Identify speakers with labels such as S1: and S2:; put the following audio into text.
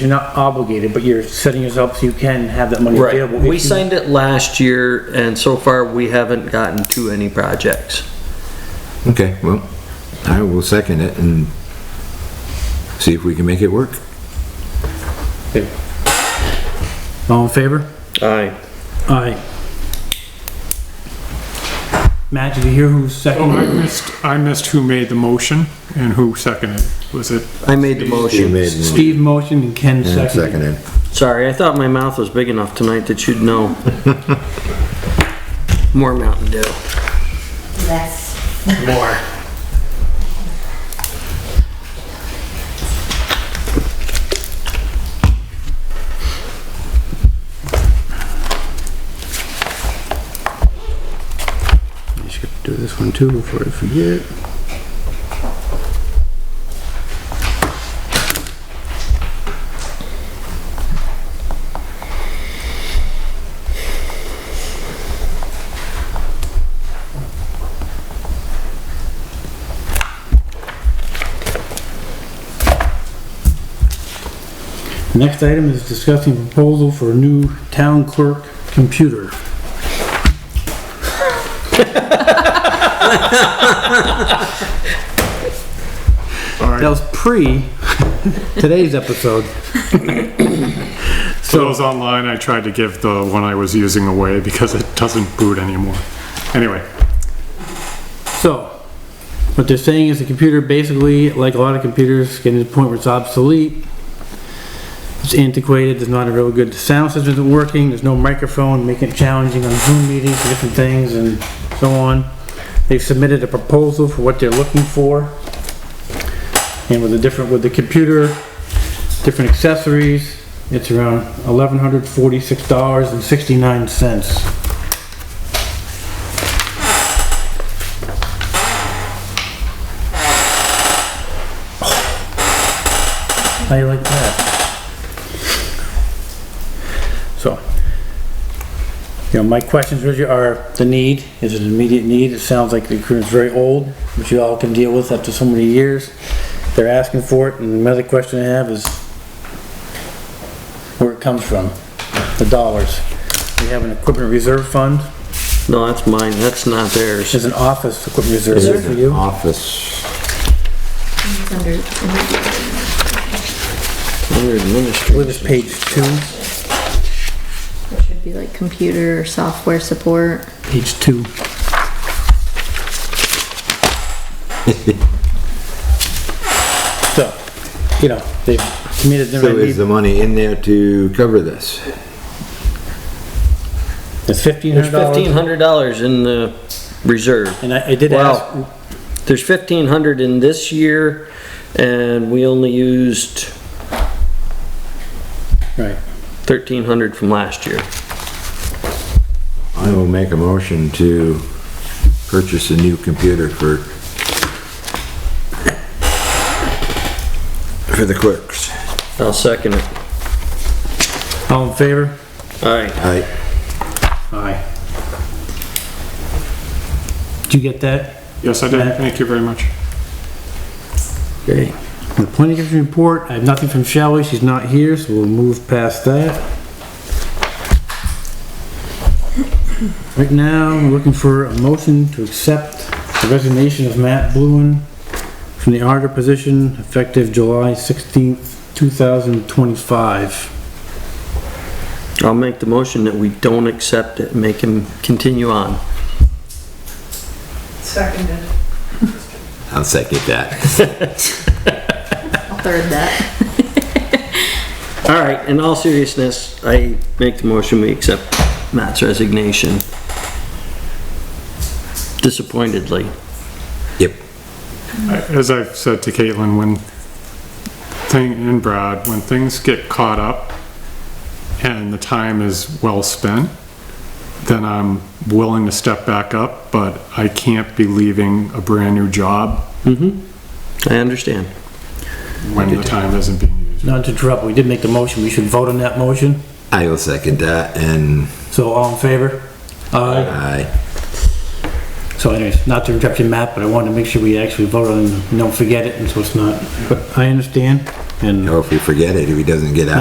S1: you're not obligated, but you're setting yourself so you can have that money
S2: Right,
S1: available.
S2: we
S1: if you-
S2: signed it last year and so far we haven't gotten to any projects.
S3: Okay, well, I will second it and see if we can make it work.
S1: Okay. All in favor?
S2: Aye.
S1: Aye. Matt, did you hear who's
S4: Oh, I
S1: second?
S4: missed, I missed who made the motion and who seconded. Was it,
S2: I made the motion.
S1: Steve motioned Oh. and Ken
S3: And
S1: seconded.
S3: seconded.
S2: Sorry, I thought my mouth was big enough tonight that you'd know. More Mountain Dew.
S5: Yes.
S2: More.
S6: You should do this one too before I forget.
S1: Next item is discussing proposal for a new town clerk computer.
S4: all
S1: That
S4: right,
S1: was pre today's episode.
S4: for those online, I tried to give the one I was using away because it doesn't boot anymore. Anyway,
S1: So, what they're saying is the computer basically, like a lot of computers, getting to the point where it's obsolete. It's antiquated, there's not a real good sound system that's working, there's no microphone, making it challenging on Zoom meetings and different things and so on. They've submitted a proposal for what they're looking for. And with the different, with the computer, different accessories, it's around eleven hundred forty-six dollars and sixty-nine cents. How you like that? So, you know, my questions really are the need, is it an immediate need? It sounds like the equipment's very old, which you all can deal with after so many years. They're asking for it, and another question I have is where it comes from, the dollars. We have an equipment reserve fund,
S2: No, that's mine, that's not theirs.
S1: there's an office equipment reserve
S3: There's
S1: for
S3: an
S1: you.
S3: Office,
S5: It's under,
S2: Under
S1: Where
S2: administrative.
S1: is page two?
S5: it should be like computer or software support.
S1: Page two. So, you know, they've committed
S3: so is
S1: their,
S3: the money in there to cover this?
S1: it's fifteen
S2: There's
S1: hundred
S2: fifteen
S1: dollars.
S2: hundred dollars in the reserve.
S1: And I, I did
S2: Wow.
S1: ask,
S2: There's fifteen hundred in this year and we only used
S1: right,
S2: thirteen hundred from last year.
S3: I will make a motion to purchase a new computer for for the clerks.
S2: I'll second it.
S1: all in favor?
S2: Aye.
S3: I,
S1: Aye. Did you get that?
S4: yes, I did, thank you very much.
S1: Okay. The planning commission report, I have nothing from Shelley, she's not here, so we'll move past that. Right now, we're looking for a motion to accept the resignation of Matt Bluen from the auditor position effective July sixteenth, two thousand twenty-five.
S2: I'll make the motion that we don't accept it, make him continue on.
S7: Seconded.
S3: I'll second that.
S5: I'll third that.
S2: All right, in all seriousness, I make the motion we accept Matt's resignation. Disappointedly.
S3: Yep.
S4: I- As I've said to Caitlin, when thing, and Brad, when things get caught up and the time is well spent, then I'm willing to step back up, but I can't be leaving a brand-new job
S2: I understand.
S4: when the time isn't being used.
S1: Not to interrupt, we did make the motion, we should vote on that motion,
S3: I will second that and
S1: so all in favor? Aye.
S3: I,
S1: So anyways, not to interrupt you, Matt, but I wanted to make sure we actually vote on, it and don't forget it, and so it's not, but I understand. and.
S3: Or if we forget it, if he doesn't get out.